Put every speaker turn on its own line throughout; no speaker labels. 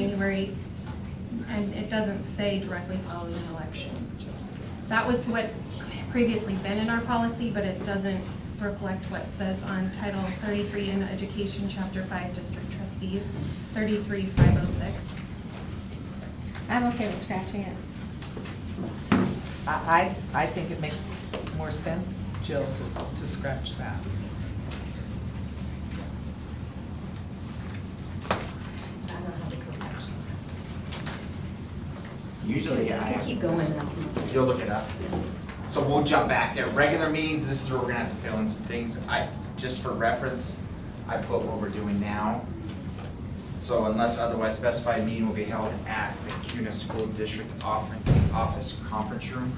January, and it doesn't say directly following an election. That was what's previously been in our policy, but it doesn't reflect what says on Title thirty-three in Education, Chapter five, District Trustees, thirty-three five oh six.
I'm okay with scratching it.
I, I I think it makes more sense, Jill, to, s- to scratch that. I don't know how the code section.
Usually,
I
I,
can keep going now.
you'll look it up. So we'll jump back there. Regular meetings, this is where we're gonna have to fill in some things. I, just for reference, I put what we're doing now. So unless otherwise specified, meeting will be held at the CUNA School District Office, Office Conference Room.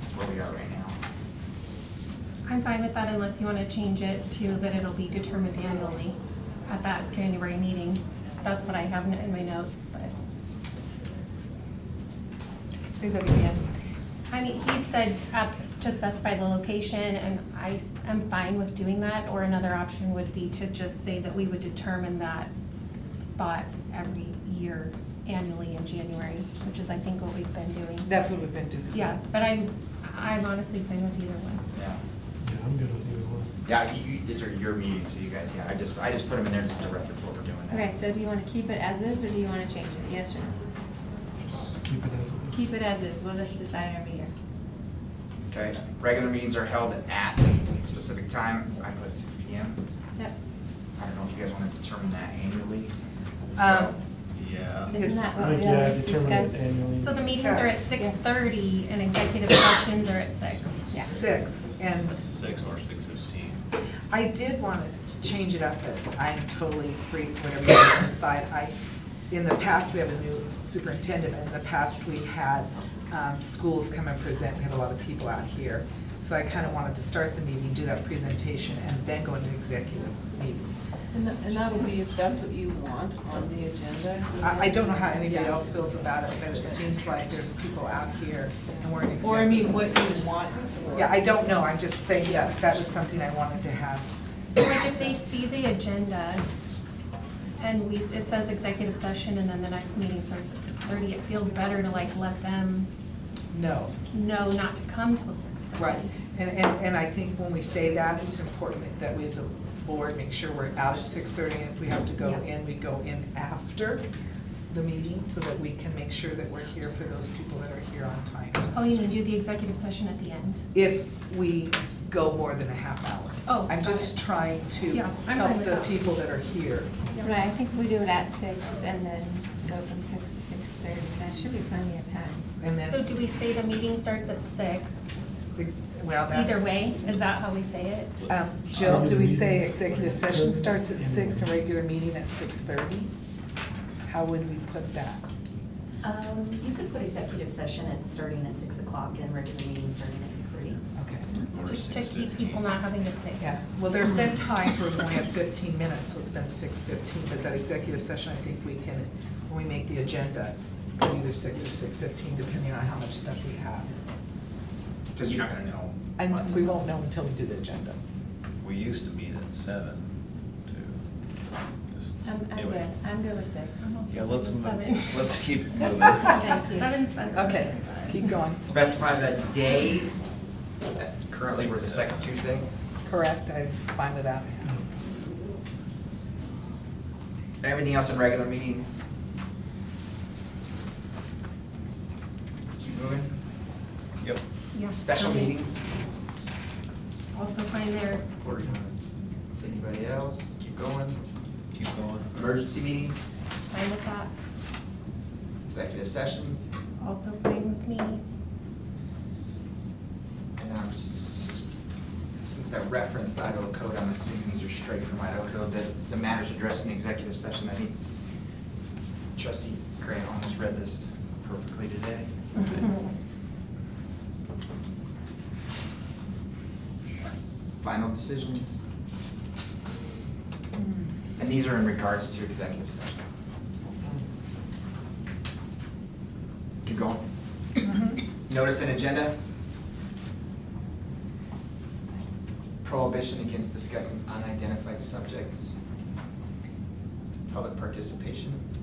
That's where we are right now.
I'm fine with that unless you want to change it to that it'll be determined annually at that January meeting. That's what I have in my notes, but.
Say that again.
I mean, he said uh, to specify the location, and I am fine with doing that, or another option would be to just say that we would determine that s- spot every year annually in January, which is, I think, what we've been doing.
That's what we've been doing.
Yeah, but I'm, I'm honestly fine with either one.
Yeah.
Yeah, I'm good with either one.
Yeah, you, you- these are your meetings, so you guys, yeah, I just, I just put them in there just to reference what we're doing now.
Okay, so do you want to keep it as is or do you want to change it? Yes or no?
Just keep it as it is.
Keep it as is. We'll just decide every year.
Okay, regular meetings are held at a specific time. I put six P M.
Yep.
I don't know if you guys want to determine that annually.
Um,
Yeah.
Isn't that
I
what
think,
we
yeah,
always
determine it
discussed?
annually.
So the meetings are at
Yes.
six thirty, and executive sessions are at six.
Yeah.
Six, and
Six or six fifteen.
I did want to change it up, but I'm totally free for whatever you guys decide. I, in the past, we have a new superintendent, and in the past, we had um, schools come and present, we have a lot of people out here. So I kind of wanted to start the meeting, do that presentation, and then go into executive meeting.
And tha- and that'll be, if that's what you want on the agenda.
I, I don't know how anybody
Yeah.
else feels about it, but it seems like there's people out here and we're in executive.
Or I mean, what you want for.
Yeah, I don't know, I'm just saying, yeah, that was something I wanted to have.
Like, if they see the agenda, and we, it says executive session, and then the next meeting starts at six thirty, it feels better to like let them
No.
No, not to come till six thirty.
Right, and, and, and I think when we say that, it's important that we as a board make sure we're out at six thirty, and if we have to go
Yeah.
in, we go in after the meeting, so that we can make sure that we're here for those people that are here on time.
Oh, you need to do the executive session at the end.
If we go more than a half hour.
Oh,
I'm
got
just
it.
trying to
Yeah, I'm fine
help
with
the
that.
people that are here.
Right, I think we do it at six and then go from six to six thirty. That should be plenty of time.
And
So
then,
do we say the meeting starts at six?
the- well, that.
Either way, is that how we say it?
Um, Jill, do we say executive session starts at six and regular meeting at six thirty? How would we put that?
Um, you could put executive session at starting at six o'clock and regular meeting starting at six thirty.
Okay.
Just to keep people not having to say.
Yeah, well, there's been times where we only have fifteen minutes, so it's been six fifteen, but that executive session, I think we can, when we make the agenda, go either six or six fifteen, depending on how much stuff we have.
Because you're not going to know. what
And
to-
we won't know until we do the agenda.
We used to meet at seven to just.
I'm, I'm
anyway.
good. I'm good with six.
Yeah, let's move,
Oh. Seven.
let's keep moving.
Thank you.
Seven's better.
Okay, keep going.
Specify the day, uh, currently we're the second Tuesday.
Correct, I'm fine with that.
Everything else in regular meeting. Keep moving. Yep.
Yeah.
Special
Okay.
meetings.
Also find their,
Or, you know, Anybody else? Keep going.
Keep going.
Emergency meetings,
fine with that,
executive sessions.
also fine with me.
And I'm, s- since that referenced Idaho code, I'm assuming these are straight from Idaho code, that the matters addressed in executive session, I think trustee Grant almost read this perfectly today.
Mm-hmm.
Final decisions. And these are in regards to executive session. Keep going. Notice and agenda. Prohibition against discussing unidentified subjects. Public participation.